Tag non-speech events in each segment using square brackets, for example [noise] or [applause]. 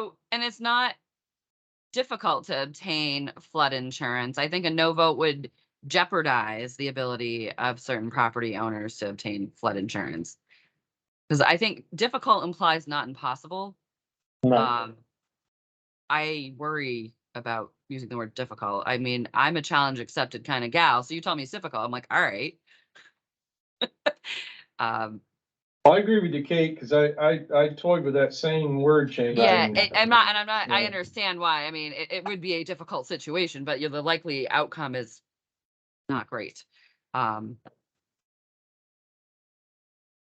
Oh, it's not difficult to obtain flood insurance. I think a no vote would jeopardize the ability of certain property owners to obtain flood insurance. Because I think difficult implies not impossible. No, Um, I worry about using the word difficult. I mean, I'm a challenge accepted kind of gal, so you tell me it's difficult, I'm like, all right. [laughs] Um, I agree with you, Kate, because I, I, I toyed with that same word change. yeah, and I'm not, and I'm not, I Yeah. understand why. I mean, it, it would be a difficult situation, but you're, the likely outcome is not great. Um.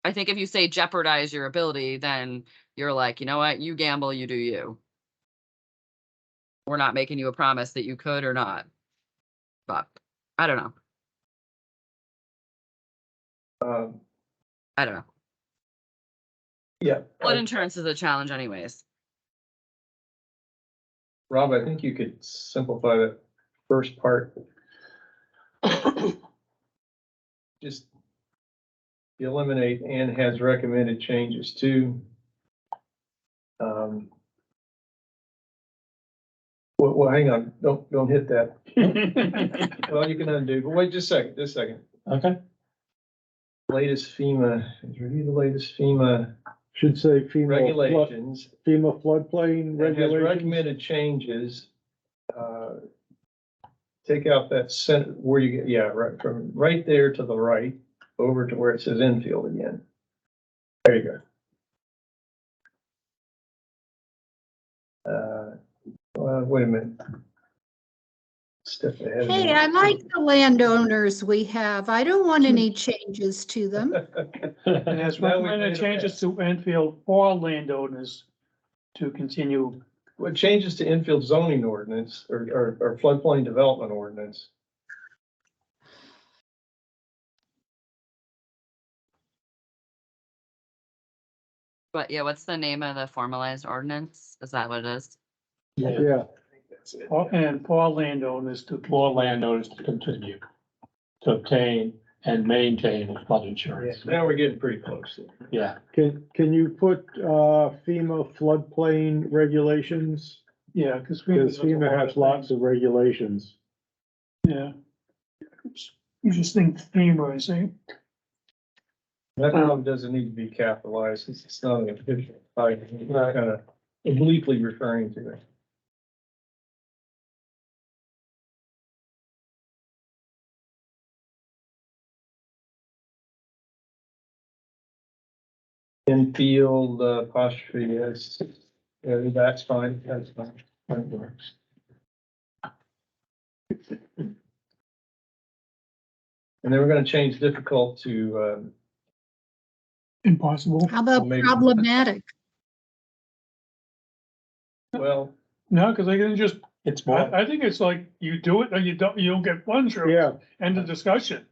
I think if you say jeopardize your ability, then you're like, you know what, you gamble, you do you. We're not making you a promise that you could or not. But, I don't know, Um, I don't know. Yeah, Flood uh, insurance is a challenge anyways. Rob, I think you could simplify that [coughs] first part. Just eliminate and has recommended changes to. Um, Well, well, hang on, don't, don't hit that. Well, you can undo, but wait just a second, just a second. Okay, Latest FEMA, review the latest FEMA should say FEMA, flood- regulations. FEMA floodplain It has regulations. recommended changes. uh, Take out that sent, where you, yeah, right, from right there to the right, over to where it says infield again. There you go. Uh, well, wait a minute. Step ahead. of Hey, me. I like [laughs] the landowners we have. I don't want any changes to them. It has Now we've made recommended a changes pass. to Enfield for landowners to continue. What changes to infield zoning ordinance or, or- or floodplain development ordinance? But yeah, what's the name of the formalized ordinance? Is that what it is? Yeah, That's it. for- And for landowners to, more landowners to continue to obtain and maintain flood Yeah, insurance. Now we're getting pretty close. there. Yeah, can, can you put, uh, FEMA floodplain regulations? yeah, because. Because FEMA has lots of regulations. Yeah. You just think FEMA, I say, That problem doesn't need to be capitalized, since it's not an official, title. It's not kind of obliquely referring to it. Infield uh, apostrophe, yes, Yeah, that's fine, that's fine, that works. And then we're gonna change difficult to, um, impossible. How about Maybe. problematic? Well, No, because I can just, it's more, I, I think it's like you do it or you don't, you don't get flood insurance. Yeah, End of discussion.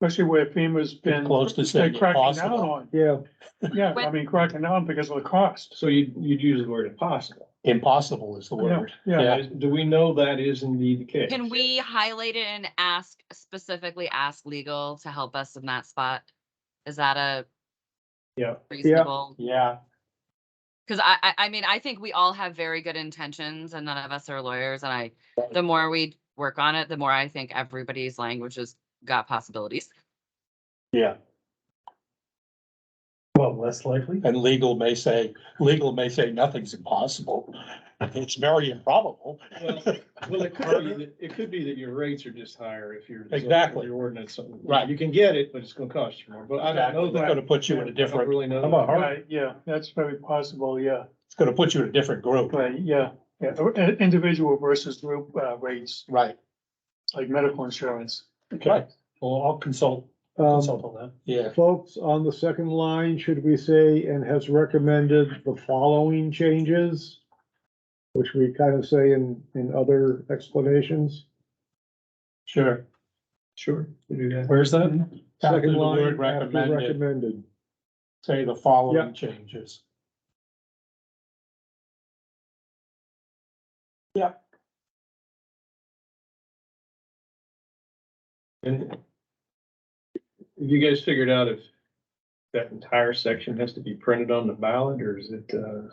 Especially where FEMA's been. it's close to they're saying cracking down impossible. on, yeah, yeah, I mean, cracking down because of the cost. so you, you'd use the word impossible. Impossible is the word. Yeah, Do we know that is indeed the case? Can we highlight it and ask, specifically ask legal to help us in that spot? Is that a? Yeah. Reasonable, Yeah, because I, I, I mean, I think we all have very good intentions and none of us are lawyers and I, the more we work on it, the more I think everybody's language has got possibilities. yeah. well, less likely. And legal may say, legal may say nothing's impossible. It's very improbable. Well, well, it could be, that- it could be that your rates are just higher if you're. Exactly. Your ordinance, something. Right. You can get it, but it's gonna cost you more, but I don't know It's that. gonna put you in a I don't different, really know. I'm a hard- right, yeah, that's very possible, yeah. it's gonna put you in a different group. Right, yeah, yeah, or- i- individual versus group uh, rates, Right, like medical insurance. right. Well, I'll consult, Um, consult on that. Yeah, folks, on the second line, should we say, and has recommended the following changes? Which we kind of say in, in other explanations. sure. Sure. we do that. Where's that? After Second the line, word after recommended, recommended. say the Yeah. following changes. And Have you guys figured out if that entire section has to be printed on the ballot, or is it, uh,